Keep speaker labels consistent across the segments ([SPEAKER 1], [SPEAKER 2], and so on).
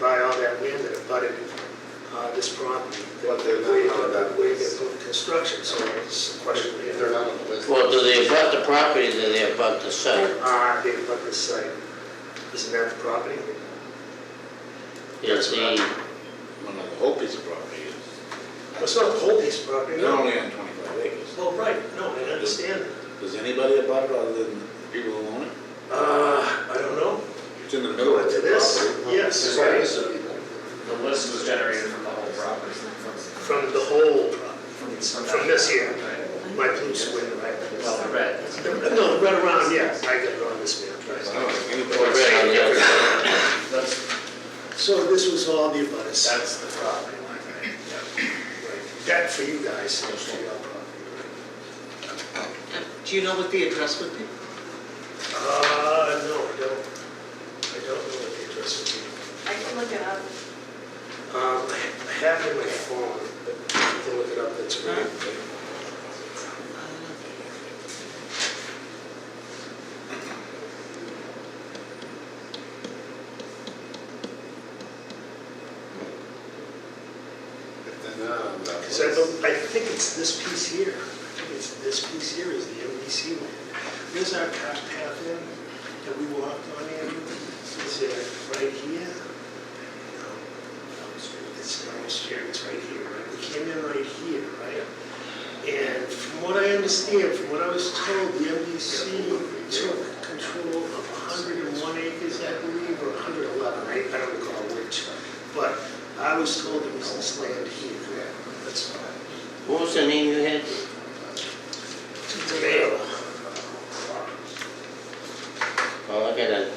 [SPEAKER 1] about uh, this property.
[SPEAKER 2] But they're not
[SPEAKER 1] Waiting
[SPEAKER 2] on that
[SPEAKER 1] waiting
[SPEAKER 2] list.
[SPEAKER 1] for Construction, so it's a question.
[SPEAKER 2] If they're not on the list.
[SPEAKER 3] Well, do they abut the property, do they abut the site?
[SPEAKER 1] Ah, they abut this site. Isn't that the property?
[SPEAKER 3] Is the,
[SPEAKER 4] One of the whole piece of property is,
[SPEAKER 1] Well, It's not the whole piece of property,
[SPEAKER 4] they're
[SPEAKER 1] no.
[SPEAKER 4] only on 25 acres.
[SPEAKER 1] Well, right, no, I understand.
[SPEAKER 4] Does anybody about it other than the people who own it?
[SPEAKER 1] Uh, I don't know.
[SPEAKER 4] It's in the middle
[SPEAKER 1] Go
[SPEAKER 4] of
[SPEAKER 1] into
[SPEAKER 4] the
[SPEAKER 1] this,
[SPEAKER 4] property.
[SPEAKER 1] yes,
[SPEAKER 2] Right.
[SPEAKER 5] The list was generated from the whole property.
[SPEAKER 1] from the whole property, from this here,
[SPEAKER 5] Right.
[SPEAKER 1] my blue square, right?
[SPEAKER 5] Well, the red.
[SPEAKER 1] No, right around, yeah, I got it on this map, right?
[SPEAKER 4] I don't think anybody-
[SPEAKER 3] or red on the other side?
[SPEAKER 5] That's,
[SPEAKER 1] So this was all the abutters.
[SPEAKER 5] that's the property line, right?
[SPEAKER 1] Right. That for you guys, seems to be our property.
[SPEAKER 6] Um, Do you know what the address would be?
[SPEAKER 1] Uh, no, I don't, I don't know what the address would be.
[SPEAKER 7] I can look it up.
[SPEAKER 1] Um, I I have it in my phone, but I can look it up, that's right.
[SPEAKER 2] If they're not on that
[SPEAKER 1] Because I
[SPEAKER 2] list.
[SPEAKER 1] don't, I think it's this piece here, I think it's this piece here is the MDC land. There's our cart path in, that we walked on in, it's uh, right here. No, It's almost here, it's right here, right, we came in right here, right? And from what I understand, from what I was told, the MDC took control of 101 acres, I believe, or 111, I I don't recall which. But I was told it was this land here, that's all.
[SPEAKER 3] What was the name you had?
[SPEAKER 1] Mail.
[SPEAKER 3] Oh, I got a,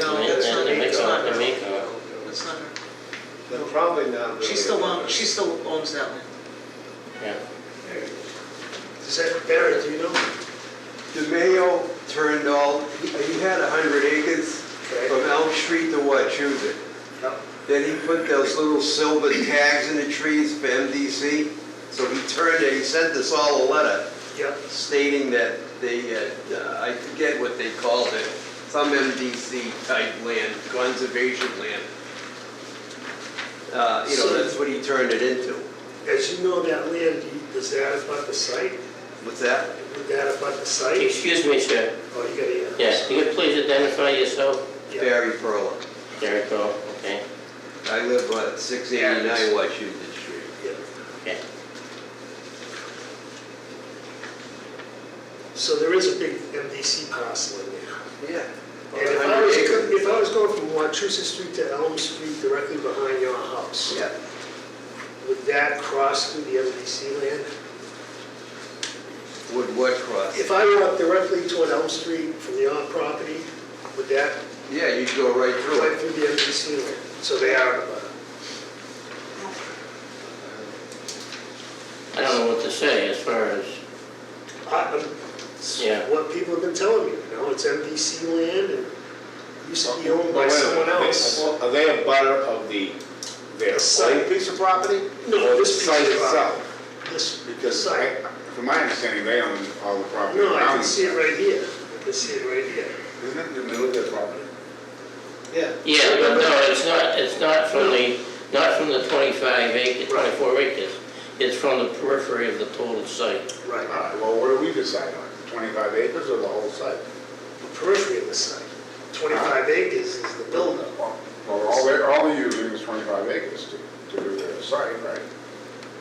[SPEAKER 6] No, that's not her, it's not
[SPEAKER 3] Jamaica,
[SPEAKER 6] her.
[SPEAKER 3] Jamaica.
[SPEAKER 6] That's not her.
[SPEAKER 2] They're probably not really.
[SPEAKER 6] She still
[SPEAKER 2] on the
[SPEAKER 6] owns, she
[SPEAKER 2] list.
[SPEAKER 6] still owns that land.
[SPEAKER 3] Yeah.
[SPEAKER 1] Is that Barrett, do you know?
[SPEAKER 8] DeMayo turned all, he he had 100 acres from Elm Street to Wachusett.
[SPEAKER 1] Yep.
[SPEAKER 8] Then he put those little silver tags in the trees for MDC. So he turned it, he sent us all a letter
[SPEAKER 1] Yep.
[SPEAKER 8] stating that they, uh, I forget what they called it, some MDC type land, conservation land. Uh, You know, that's what he turned it into.
[SPEAKER 1] As you know, that land, does that abut the site?
[SPEAKER 8] What's that?
[SPEAKER 1] Would that abut the site?
[SPEAKER 3] Excuse me, sir.
[SPEAKER 1] Oh, you got it.
[SPEAKER 3] Yes, you could please identify yourself?
[SPEAKER 1] Yeah.
[SPEAKER 8] Barry Perla.
[SPEAKER 3] There you go, okay.
[SPEAKER 8] I live on 689 Wachusett Street.
[SPEAKER 1] Yeah.
[SPEAKER 3] Okay.
[SPEAKER 1] So there is a big MDC parcel in there.
[SPEAKER 8] Yeah.
[SPEAKER 1] And if I was, if I was going from Wachusett Street to Elm Street directly behind your house,
[SPEAKER 8] Yeah,
[SPEAKER 1] would that cross through the MDC land?
[SPEAKER 8] would what cross?
[SPEAKER 1] If I walked directly toward Elm Street from your property, would that
[SPEAKER 8] Yeah, you'd go right through
[SPEAKER 1] right
[SPEAKER 8] it.
[SPEAKER 1] through the MDC land? So they are, uh,
[SPEAKER 3] I don't know what to say as far as,
[SPEAKER 1] I- I'm-
[SPEAKER 3] Yeah.
[SPEAKER 1] what people have been telling me, you know, it's MDC land and used to be owned by
[SPEAKER 4] Wait a minute.
[SPEAKER 1] someone
[SPEAKER 4] They-
[SPEAKER 1] else.
[SPEAKER 4] Are they a butter of the, their
[SPEAKER 1] The site.
[SPEAKER 4] site piece of property?
[SPEAKER 1] No,
[SPEAKER 4] Or the
[SPEAKER 1] this piece
[SPEAKER 4] site
[SPEAKER 1] of
[SPEAKER 4] itself?
[SPEAKER 1] This,
[SPEAKER 4] Because I,
[SPEAKER 1] Site.
[SPEAKER 4] from my understanding, they own all the property
[SPEAKER 1] no, I
[SPEAKER 4] around
[SPEAKER 1] can
[SPEAKER 4] it.
[SPEAKER 1] see it right here, I can see it right here.
[SPEAKER 4] Isn't it in the middle of their property?
[SPEAKER 2] Yeah.
[SPEAKER 3] yeah, but no, it's not, it's not from the, not from the 25 acres, 24 acres. It's from the periphery of the total site.
[SPEAKER 4] All
[SPEAKER 1] Right,
[SPEAKER 4] right, well, what do we decide on? 25 acres or the whole site?
[SPEAKER 1] the periphery of the site, 25 acres is the buildup.
[SPEAKER 4] Well, all they're, all they're using is 25 acres to, to do their site, right?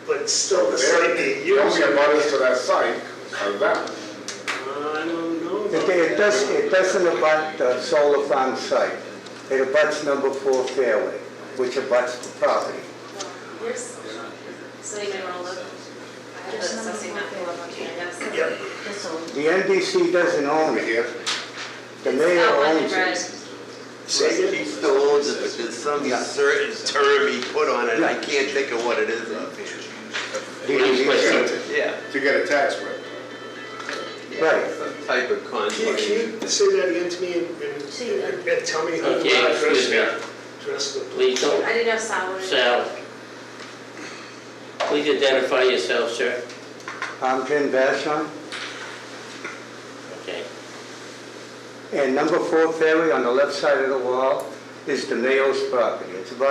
[SPEAKER 1] But still, the
[SPEAKER 4] They're-
[SPEAKER 1] site being
[SPEAKER 4] The
[SPEAKER 1] used.
[SPEAKER 4] only abutters to that site are them.
[SPEAKER 1] I don't know.
[SPEAKER 9] It
[SPEAKER 1] about
[SPEAKER 9] it does,
[SPEAKER 1] that.
[SPEAKER 9] it doesn't abut the solar farm site. It abuts number four fairway, which abuts the property.
[SPEAKER 7] Well, There's, so you may want to look. I have the assessing map pulled up on GIS.
[SPEAKER 1] Yep,
[SPEAKER 9] The NDC doesn't own it.
[SPEAKER 4] Yeah.
[SPEAKER 9] The mayor
[SPEAKER 7] Outlined in
[SPEAKER 9] owns
[SPEAKER 7] red.
[SPEAKER 9] it.
[SPEAKER 1] say
[SPEAKER 8] He
[SPEAKER 1] again?
[SPEAKER 8] still owns it, but there's some certain term he put on it, and I
[SPEAKER 9] Right.
[SPEAKER 8] can't think of what it is up here.
[SPEAKER 3] Right.
[SPEAKER 8] Yeah,
[SPEAKER 4] To get a tax break.
[SPEAKER 9] Right.
[SPEAKER 8] some type of
[SPEAKER 1] Can you,
[SPEAKER 8] conflict.
[SPEAKER 1] can you say that again to me and- and, and- and tell me how
[SPEAKER 3] Okay,
[SPEAKER 1] to address
[SPEAKER 3] excuse me.
[SPEAKER 1] that? Address the.
[SPEAKER 3] Please don't
[SPEAKER 7] I didn't have salary.
[SPEAKER 3] Sal, please identify yourself, sir.
[SPEAKER 9] I'm Jim Vashon,
[SPEAKER 3] Okay.
[SPEAKER 9] and number four fairway on the left side of the wall is the mayor's property. It's about